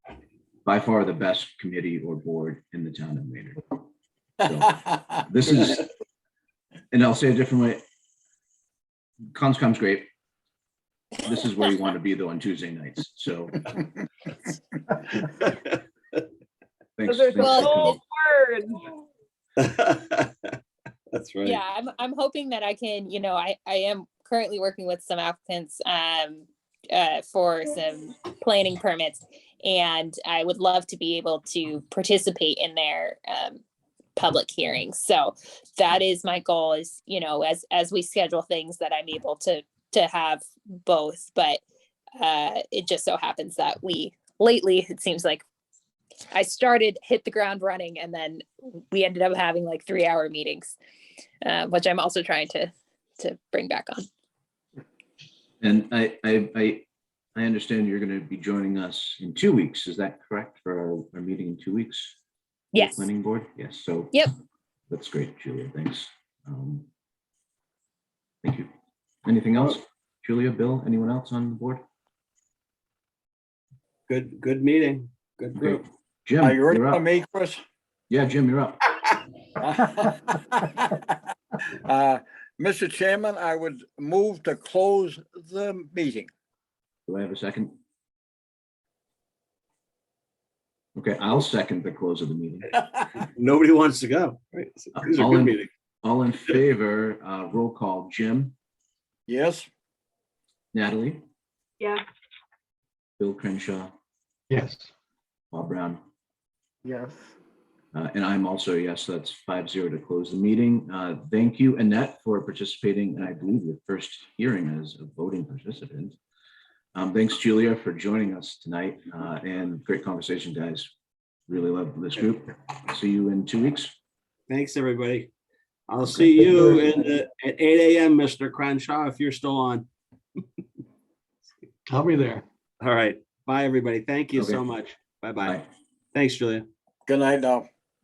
by far the best committee or board in the town of Maynard. This is, and I'll say it differently. Conscom's great. This is where you want to be though on Tuesday nights, so. Thanks. Those are thanks the for whole coming. words. That's right. Yeah, I'm, I'm hoping that I can, you know, I, I am currently working with some applicants, um, uh, for some planning permits. And I would love to be able to participate in their, um, public hearings. So that is my goal is, you know, as, as we schedule things that I'm able to, to have both, but, uh, it just so happens that we, lately, it seems like I started, hit the ground running, and then we ended up having like three hour meetings uh, which I'm also trying to to bring back on. And I, I, I, I understand you're going to be joining us in two weeks. Is that correct for our, our meeting in two weeks? The Yes. Planning board? Yes, so. Yep. That's great, Julia. Thanks. Um, Thank you. Anything else? Julia, Bill, anyone else on the board? Good, good meeting. Good Okay. group. Jim, Are you ready you're for up. me, Chris? Yeah, Jim, you're up. Uh, Mr. Chairman, I would move to close the meeting. Do I have a second? Okay, I'll second the close of the meeting. Nobody wants to go. Right. So These are All good in- meetings. All in favor, uh, roll call, Jim, Yes, Natalie, Yeah. Bill Crenshaw, Yes. Bob Brown, Yes. Uh, And I'm also, yes, that's five zero to close the meeting. Uh, Thank you, Annette, for participating, and I believe your first hearing as a voting participant. Um, Thanks, Julia, for joining us tonight, uh, and great conversation, guys. Really love this group. See you in two weeks. Thanks, everybody. I'll see you in the- at eight AM, Mr. Crenshaw, if you're still on. I'll be there. All right. Bye, everybody. Thank you so Okay. much. Bye-bye. Bye. Thanks, Julia. good night now.